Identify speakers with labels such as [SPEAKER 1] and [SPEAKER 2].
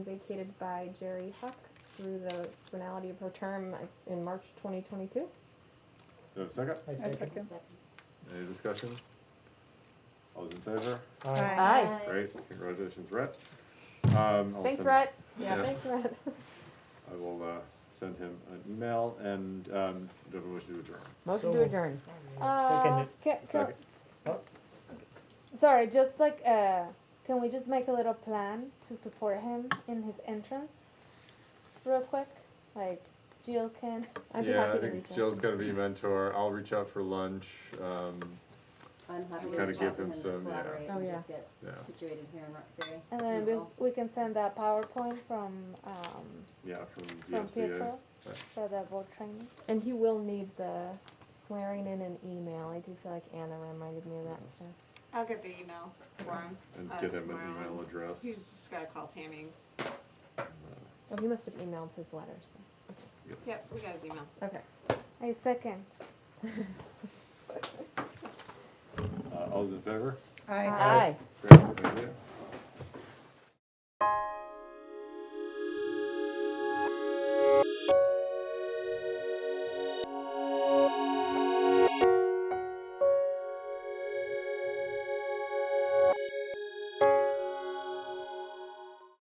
[SPEAKER 1] vacated by Jerry Huck through the finality of her term in March 2022.
[SPEAKER 2] Do we have a second?
[SPEAKER 3] I
[SPEAKER 4] I
[SPEAKER 3] second.
[SPEAKER 4] second.
[SPEAKER 2] Any discussion? All those in favor?
[SPEAKER 3] Aye.
[SPEAKER 1] Aye.
[SPEAKER 2] Great, congratulations, Rhett. Um, I'll
[SPEAKER 1] Thanks,
[SPEAKER 2] send-
[SPEAKER 1] Rhett. Yeah,
[SPEAKER 2] Yeah.
[SPEAKER 1] thanks, Rhett.
[SPEAKER 2] I will, uh, send him an email and, um, do we wish to adjourn?
[SPEAKER 1] Motion to
[SPEAKER 3] So-
[SPEAKER 1] adjourn.
[SPEAKER 4] Uh,
[SPEAKER 3] Second
[SPEAKER 4] ca- so,
[SPEAKER 2] Second.
[SPEAKER 4] sorry, just like, uh, can we just make a little plan to support him in his entrance? Real quick, like Jill can,
[SPEAKER 1] I'd be
[SPEAKER 2] Yeah, I
[SPEAKER 1] happy to
[SPEAKER 2] think
[SPEAKER 1] reach out.
[SPEAKER 2] Jill's gonna be a mentor. I'll reach out for lunch, um,
[SPEAKER 5] I'm happy
[SPEAKER 2] You
[SPEAKER 5] to
[SPEAKER 2] kinda
[SPEAKER 5] talk
[SPEAKER 2] give
[SPEAKER 5] to
[SPEAKER 2] them
[SPEAKER 5] him and
[SPEAKER 2] some, yeah.
[SPEAKER 5] collaborate
[SPEAKER 1] Oh,
[SPEAKER 5] and
[SPEAKER 1] yeah.
[SPEAKER 5] just get
[SPEAKER 2] yeah,
[SPEAKER 5] situated here in Roxbury.
[SPEAKER 4] and then we,
[SPEAKER 5] Beautiful.
[SPEAKER 4] we can send a PowerPoint from, um,
[SPEAKER 2] yeah, from
[SPEAKER 4] from
[SPEAKER 2] VSBA.
[SPEAKER 4] Pietro
[SPEAKER 2] Right.
[SPEAKER 4] for the board training.
[SPEAKER 1] And you will need the swearing in an email. I do feel like Anna reminded me of that, so.
[SPEAKER 6] I'll get the email for him.
[SPEAKER 2] And
[SPEAKER 6] Uh,
[SPEAKER 2] get him an
[SPEAKER 6] tomorrow.
[SPEAKER 2] email address.
[SPEAKER 6] He's just gotta call Tammy.
[SPEAKER 1] Oh, he must have emailed his letter, so,
[SPEAKER 2] Yes.
[SPEAKER 6] Yep, we got his email.
[SPEAKER 1] okay.
[SPEAKER 4] I second.
[SPEAKER 2] Uh, all those in favor?
[SPEAKER 1] Aye.